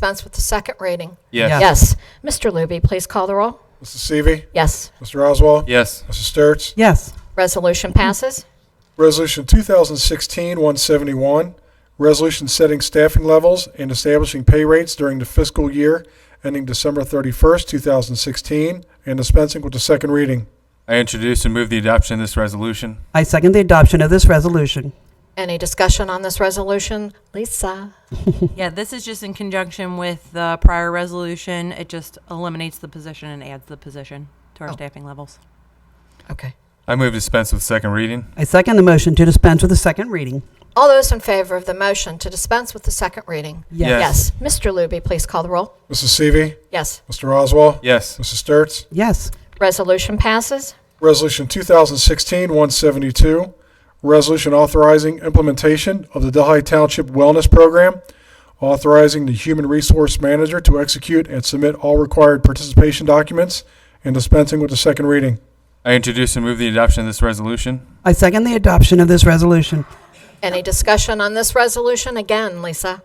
dispense with the second reading? Yes. Yes. Mr. Luby, please call the roll. Mrs. Seavey. Yes. Mr. Oswald. Yes. Mrs. Sturts. yes, Resolution passes. Resolution 2016-171, resolution setting staffing levels and establishing pay rates during the fiscal year ending December 31st, 2016, and dispensing with the second reading. I introduce and move the adoption of this resolution. I second the adoption of this resolution. Any discussion on this resolution? Lisa? Yeah, this is just in conjunction with the prior resolution. It just eliminates the position and adds the position to our Oh. staffing levels. Okay. I move dispense with second reading. I second the motion to dispense with the second reading. All those in favor of the motion to dispense with the second reading? Yes. Yes. Mr. Luby, please call the roll. Mrs. Seavey. Yes. Mr. Oswald. Yes. Mrs. Sturts. Yes, Resolution passes. Resolution 2016-172, resolution authorizing implementation of the Delhi Township Wellness Program, authorizing the Human Resource Manager to execute and submit all required participation documents, and dispensing with the second reading. I introduce and move the adoption of this resolution. I second the adoption of this resolution. Any discussion on this resolution? Again, Lisa?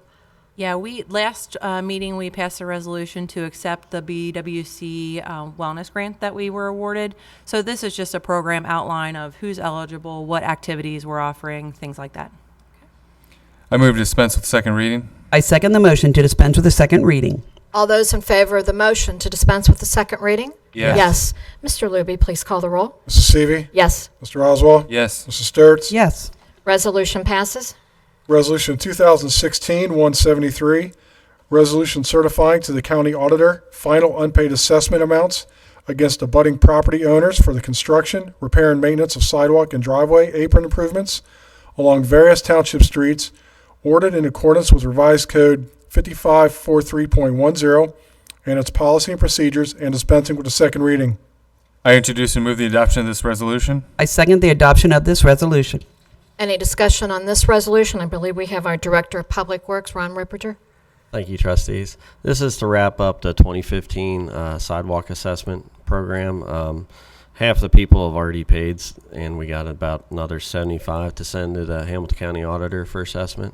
Yeah, we, last uh, meeting, we passed a resolution to accept the BWC uh, Wellness Grant that we were awarded. So this is just a program outline of who's eligible, what activities we're offering, things like that. I move dispense with second reading. I second the motion to dispense with the second reading. All those in favor of the motion to dispense with the second reading? Yes. Yes. Mr. Luby, please call the roll. Mrs. Seavey. Yes. Mr. Oswald. Yes. Mrs. Sturts. Yes, Resolution passes. Resolution 2016-173, resolution certifying to the county auditor final unpaid assessment amounts against abutting property owners for the construction, repair, and maintenance of sidewalk and driveway apron improvements along various township streets ordered in accordance with revised code 5543.10 and its policy and procedures and dispensing with the second reading. I introduce and move the adoption of this resolution. I second the adoption of this resolution. Any discussion on this resolution? I believe we have our Director of Public Works, Ron Ripperter. Thank you, trustees. This is to wrap up the 2015 uh, sidewalk assessment program. Um, half the people have already paid, s- and we got about another 75 to send to the Hamilton County Auditor for assessment,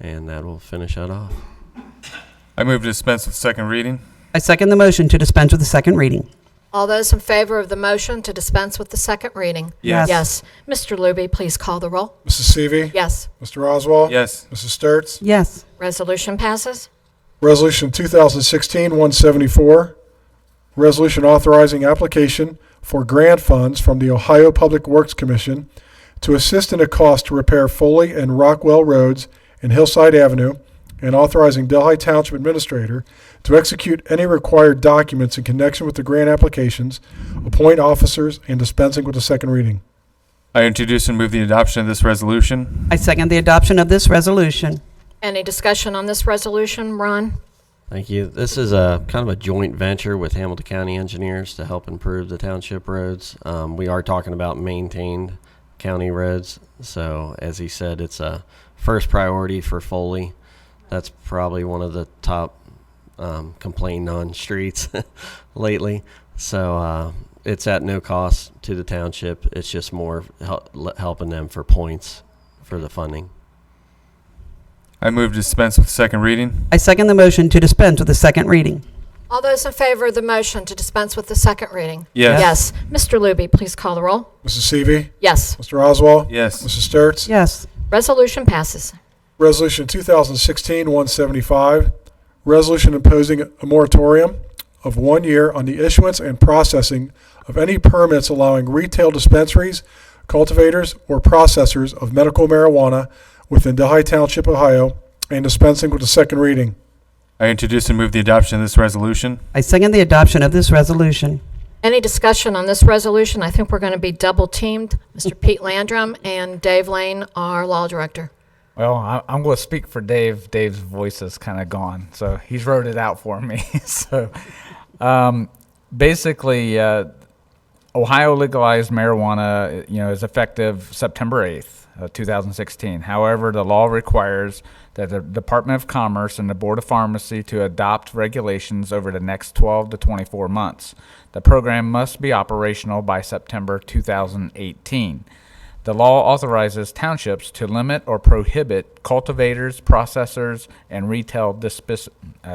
and that will finish that off. I move dispense with second reading. I second the motion to dispense with the second reading. All those in favor of the motion to dispense with the second reading? Yes. Yes. Mr. Luby, please call the roll. Mrs. Seavey. Yes. Mr. Oswald. Yes. Mrs. Sturts. Yes, Resolution passes. Resolution 2016-174, resolution authorizing application for grant funds from the Ohio Public Works Commission to assist in a cost to repair Foley and Rockwell Roads and Hillside Avenue, and authorizing Delhi Township Administrator to execute any required documents in connection with the grant applications, appoint officers, and dispensing with the second reading. I introduce and move the adoption of this resolution. I second the adoption of this resolution. Any discussion on this resolution? Ron? Thank you. This is a kind of a joint venture with Hamilton County Engineers to help improve the township roads. Um, we are talking about maintained county roads. So, as he said, it's a first priority for Foley. That's probably one of the top um, complained on streets lately. So, uh, it's at no cost to the township. It's just more hel- le- helping them for points for the funding. I move dispense with second reading. I second the motion to dispense with the second reading. All those in favor of the motion to dispense with the second reading? Yes. Yes. Mr. Luby, please call the roll. Mrs. Seavey. Yes. Mr. Oswald. Yes. Mrs. Sturts. Yes, Resolution passes. Resolution 2016-175, resolution imposing a moratorium of one year on the issuance and processing of any permits allowing retail dispensaries, cultivators, or processors of medical marijuana within Delhi Township, Ohio, and dispensing with the second reading. I introduce and move the adoption of this resolution. I second the adoption of this resolution. Any discussion on this resolution? I think we're going to be double teamed. Mr. Pete Landrum and Dave Lane, our law director. Well, I, I'm going to speak for Dave. Dave's voice is kind of gone, so he's wrote it out for me. so, um, basically, uh, Ohio legalized marijuana. You know, is effective September 8th, uh, 2016. However, the law requires that the Department of Commerce and the Board of Pharmacy to adopt regulations over the next 12 to 24 months. The program must be operational by September 2018. The law authorizes townships to limit or prohibit cultivators, processors, and retail dispis- uh,